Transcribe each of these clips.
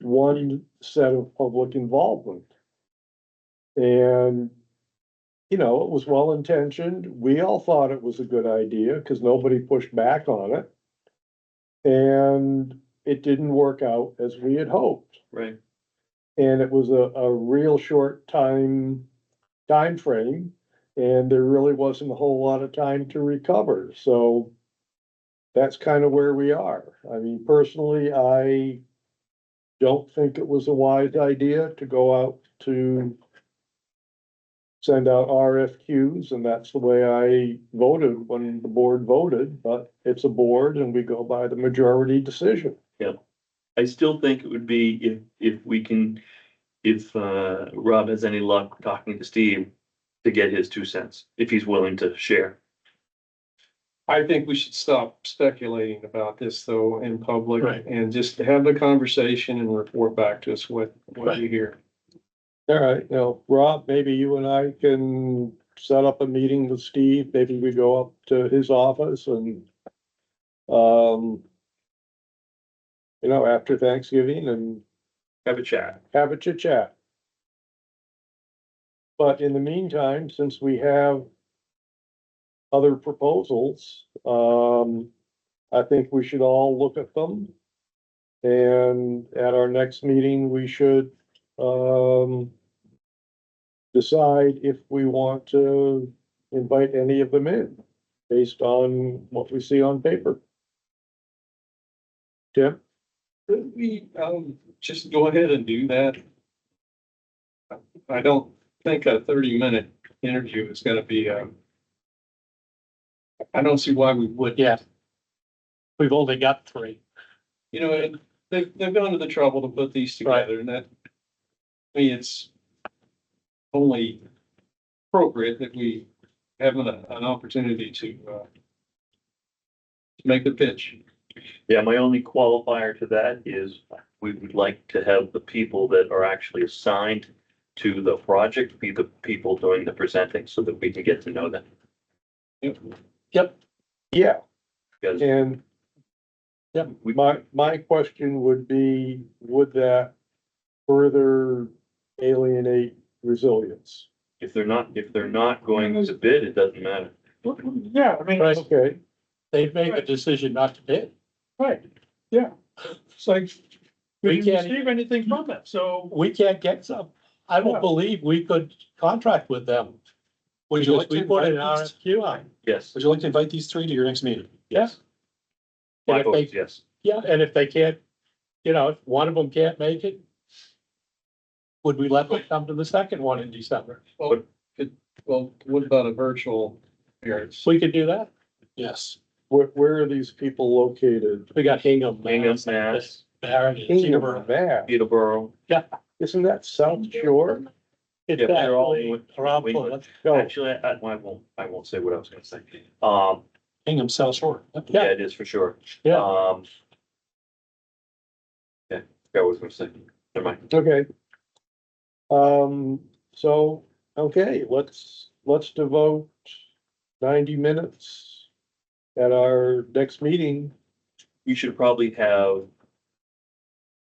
one set of public involvement. And, you know, it was well intentioned. We all thought it was a good idea because nobody pushed back on it. And it didn't work out as we had hoped. Right. And it was a, a real short time, time frame, And there really wasn't a whole lot of time to recover. So that's kind of where we are. I mean, personally, I don't think it was a wise idea to go out to send out RFQs, and that's the way I voted when the board voted, but it's a board and we go by the majority decision. I still think it would be if, if we can, if, uh, Rob has any luck talking to Steve to get his two cents, if he's willing to share. I think we should stop speculating about this though in public Right. and just have the conversation and report back to us what, what you hear. All right, now, Rob, maybe you and I can set up a meeting with Steve, maybe we go up to his office and um you know, after Thanksgiving and Have a chat. have a chit chat. But in the meantime, since we have other proposals, um, I think we should all look at them. And at our next meeting, we should, um, decide if we want to invite any of them in based on what we see on paper. Tim? Could we, um, just go ahead and do that? I don't think a thirty minute interview is gonna be, um, I don't see why we would. Yeah. We've only got three. You know, and they've, they've gone to the trouble to put these together and that, I mean, it's only appropriate that we have an, an opportunity to, uh, to make the pitch. Yeah, my only qualifier to that is we would like to have the people that are actually assigned to the project be the people doing the presenting so that we can get to know them. Yeah. Because And we, My, my question would be, would that further alienate resilience? if they're not, if they're not going to bid, it doesn't matter. Yeah, I mean. Okay, They've made the decision not to bid. Right, yeah. It's like, we didn't receive anything from it, so. We can't get some. I don't believe we could contract with them. Would you like we put an RFQ on? Yes. Would you like to invite these three to your next meeting? Yes. And My if vote they- is yes. Yeah, and if they can't, you know, if one of them can't make it, would we let them come to the second one in December? Well, what about a virtual appearance? We could do that? Yes, where, where are these people located? we got Hingham. Hingham, Mass, Barrett, Kingdom Peterborough. of Bath, Peterborough. isn't that South Shore? It's Yeah, they're all actually in- around Wayne- Portland. No, Actually, I, I won't, I won't say what I was gonna say. Um, Hingham South Shore. yeah, it is for sure. Yeah. Um. Yeah, that was my second. Never mind. okay. Um, so, okay, let's, let's devote ninety minutes at our next meeting. You should probably have a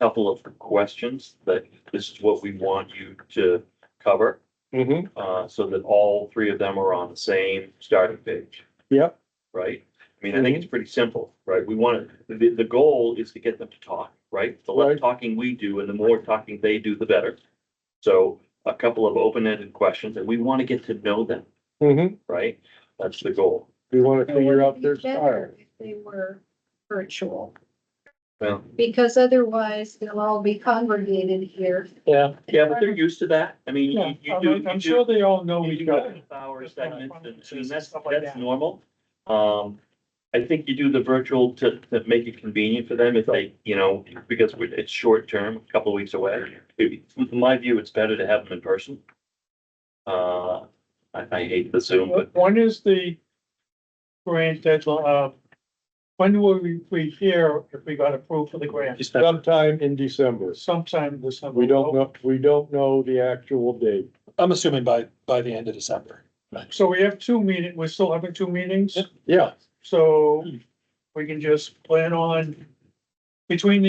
couple of questions that this is what we want you to cover, Mm-hmm. uh, so that all three of them are on the same starting page. Yep, right? I mean, I Mhm. think it's pretty simple, right? We want to, the, the goal is to get them to talk, right? The less Right. talking we do and the more talking they do, the better. So a couple of open-ended questions and we want to get to know them, mm-hmm, right? That's the goal. we wanna It would figure out be their style. better if They were virtual, Well, because otherwise they'll all be congregated here. Yeah, yeah, but they're used to that. I mean, Yeah, you- you do, I'm, you I'm do. sure they all know you each do other. half-hour Just kinda segments and- conferences I mean, and that's, stuff like that's that. normal. Um, I think you do the virtual to, to make it convenient for them if they, you know, because we- it's short term, a couple of weeks away. It- In my view, it's better to have them in person. Uh, I, I hate the Zoom, but When is the grant deadline, uh, when will we, we hear if we got approved for the grant? just that- Sometime in December. Sometime this summer. We don't know, we don't know the actual date. I'm assuming by, by the end of December. So we have two meeting, we're still having two meetings, Yeah, so we can just plan on between the